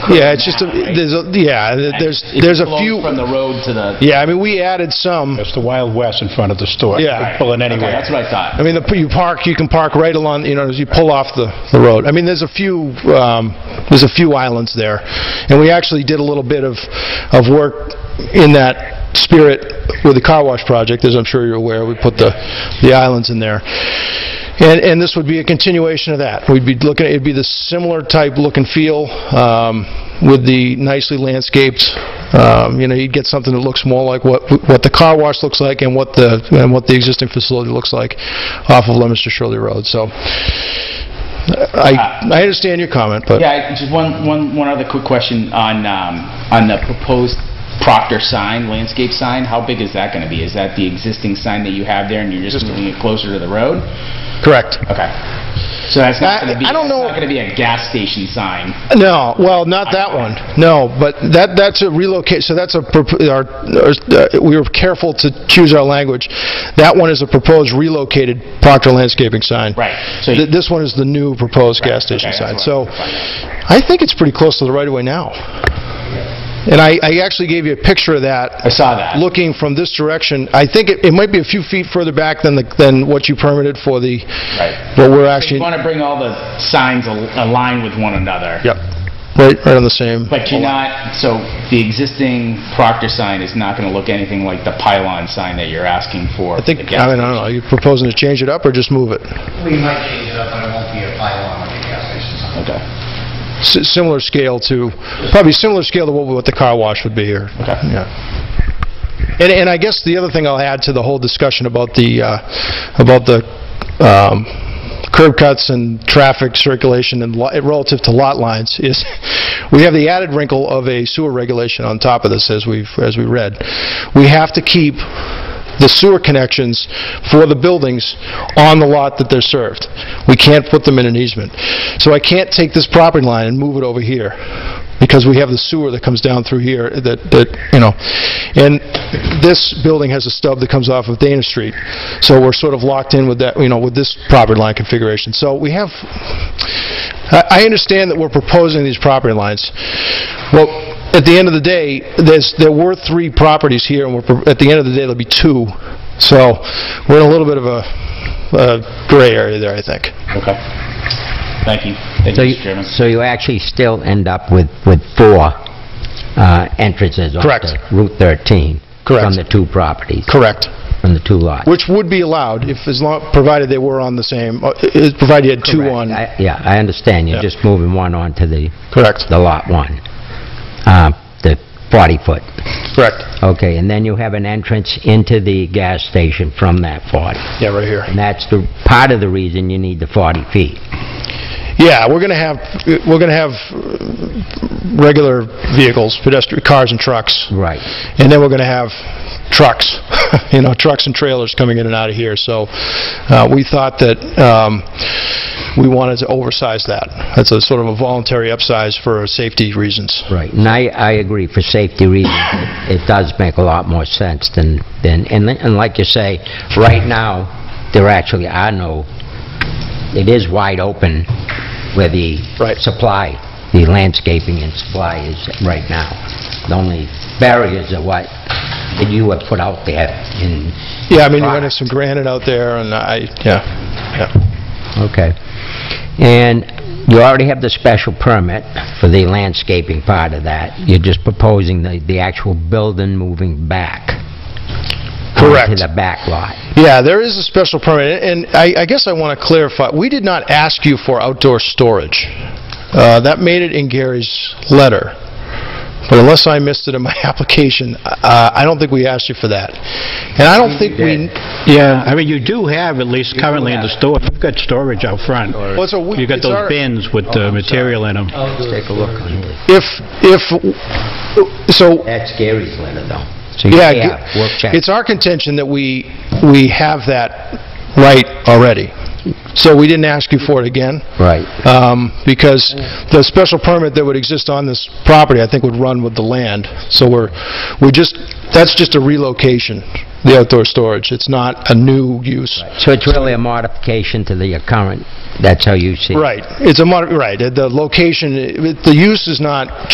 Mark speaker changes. Speaker 1: Yeah, it's just, a- there's, a- yeah, there's, there's a few,
Speaker 2: From the road to the,
Speaker 1: yeah, I mean, we added some.
Speaker 3: It's the Wild West in front of the store.
Speaker 1: Yeah.
Speaker 3: You Pull in
Speaker 2: okay,
Speaker 3: anywhere.
Speaker 2: that's what I thought.
Speaker 1: I mean, the- you park, you can park right along, you know, as you pull off the the road. I mean, there's a few, um, there's a few islands there. And we actually did a little bit of, of work in that spirit with the car wash project, as I'm sure you're aware. We put the, the islands in there. And, and this would be a continuation of that. We'd be looking, it'd be the similar type look and feel um, with the nicely landscaped, um, you know, you'd get something that looks more like what, what the car wash looks like and what the, and what the existing facility looks like off of Leominster Shirley Road. So I, I understand your comment, but
Speaker 2: Yeah, I- just one, one, one other quick question on, um, on the proposed Proctor sign, landscape sign, how big is that gonna be? Is that the existing sign that you have there and you're just moving it closer to the road?
Speaker 1: correct.
Speaker 2: Okay. So that's not gonna be,
Speaker 1: I- I don't
Speaker 2: that's
Speaker 1: know-
Speaker 2: not gonna be a gas station sign.
Speaker 1: No, well, not that one. No, but that, that's a relocate, so that's a, prop- our, our- we were careful to choose our language. That one is a proposed relocated Proctor landscaping sign.
Speaker 2: Right, so you-
Speaker 1: Th- This one is the new proposed gas station
Speaker 2: okay,
Speaker 1: sign.
Speaker 2: that's
Speaker 1: So
Speaker 2: what I-
Speaker 1: I think it's pretty close to the right-of-way now. And I, I actually gave you a picture of that.
Speaker 2: I saw that.
Speaker 1: Looking from this direction, I think it, it might be a few feet further back than the, than what you permitted for the,
Speaker 2: Right.
Speaker 1: what
Speaker 2: You
Speaker 1: we're actually,
Speaker 2: wanna bring all the signs al- aligned with one another.
Speaker 1: yep, right, right on the same.
Speaker 2: But you're not, so the existing Proctor sign is not gonna look anything like the pylon sign that you're asking for?
Speaker 1: I think, I mean, I don't know, are you proposing to change it up or just move it?
Speaker 4: We might change it up, but it won't be a pylon like a gas station sign.
Speaker 2: Okay.
Speaker 1: S- Similar scale to, probably similar scale to what what the car wash would be here.
Speaker 2: Okay.
Speaker 1: Yeah. And, and I guess the other thing I'll add to the whole discussion about the, uh, about the um, curb cuts and traffic circulation and lo- relative to lot lines is, we have the added wrinkle of a sewer regulation on top of this, as we've, as we read. We have to keep the sewer connections for the buildings on the lot that they're served. We can't put them in an easement. So I can't take this property line and move it over here, because we have the sewer that comes down through here that, that, you know, and this building has a stub that comes off of Dana Street, so we're sort of locked in with that, you know, with this property line configuration. So we have, I I understand that we're proposing these property lines. Well, at the end of the day, there's, there were three properties here, and we're, pro- at the end of the day, there'll be two. So we're in a little bit of a uh, gray area there, I think.
Speaker 2: Okay. Thank you. Thank
Speaker 5: So
Speaker 2: you,
Speaker 5: you-
Speaker 2: Mr. Chairman.
Speaker 5: So you actually still end up with, with four uh, entrances off
Speaker 1: Correct.
Speaker 5: the Route 13?
Speaker 1: Correct.
Speaker 5: From the two properties,
Speaker 1: Correct.
Speaker 5: from the two lots?
Speaker 1: Which would be allowed if, as long, provided they were on the same, uh, i- provided you had two
Speaker 5: Correct.
Speaker 1: on.
Speaker 5: I- Yeah, I understand,
Speaker 1: Yeah.
Speaker 5: you're just moving one onto the,
Speaker 1: Correct.
Speaker 5: the lot one, uh, the 40-foot.
Speaker 1: Correct.
Speaker 5: Okay, and then you have an entrance into the gas station from that 40.
Speaker 1: Yeah, right here.
Speaker 5: And that's the, part of the reason you need the 40 feet.
Speaker 1: Yeah, we're going to have, we're going to have uh, regular vehicles, pedestrian, cars and trucks.
Speaker 5: Right.
Speaker 1: And then we're going to have trucks, you know, trucks and trailers coming in and out of here. So uh, we thought that um, we wanted to oversize that. That's a sort of a voluntary upsize for safety reasons.
Speaker 5: Right, and I, I agree, for safety reasons, it it does make a lot more sense than, than, and li- and like you say, right now, there actually are no, it is wide open where the
Speaker 1: Right.
Speaker 5: supply, the landscaping and supply is right now. The only barriers are what that you have put out there in,
Speaker 1: Yeah, I mean, you're going to have some granite out there and I, yeah, yeah.
Speaker 5: okay. And you already have the special permit for the landscaping part of that, you're just proposing the, the actual building moving back.
Speaker 1: Correct.
Speaker 5: To the back lot.
Speaker 1: Yeah, there is a special permit, and I I guess I want to clarify, we did not ask you for outdoor storage. Uh, That made it in Gary's letter, but unless I missed it in my application, uh, I don't think we asked you for that. And I don't think we...
Speaker 3: Yeah, I mean, you do have, at least currently in the store, you've got storage out front.
Speaker 1: Well, it's a we-
Speaker 3: You've got
Speaker 1: it's our- Oh,
Speaker 3: those bins with the material in them.
Speaker 5: Take a look on it.
Speaker 1: If, if, so,
Speaker 5: That's Gary's letter, though.
Speaker 1: yeah,
Speaker 5: We'll check.
Speaker 1: g- it's our contention that we, we have that right already. So we didn't ask you for it again?
Speaker 5: Right.
Speaker 1: um, because the special permit that would exist on this property, I think, would run with the land. So we're, we're just, that's just a relocation, the outdoor storage. It's not a new use.
Speaker 5: So it's really a modification to the current, that's how you see it?
Speaker 1: Right. It's a, mod- right, the- the location, it- the use is not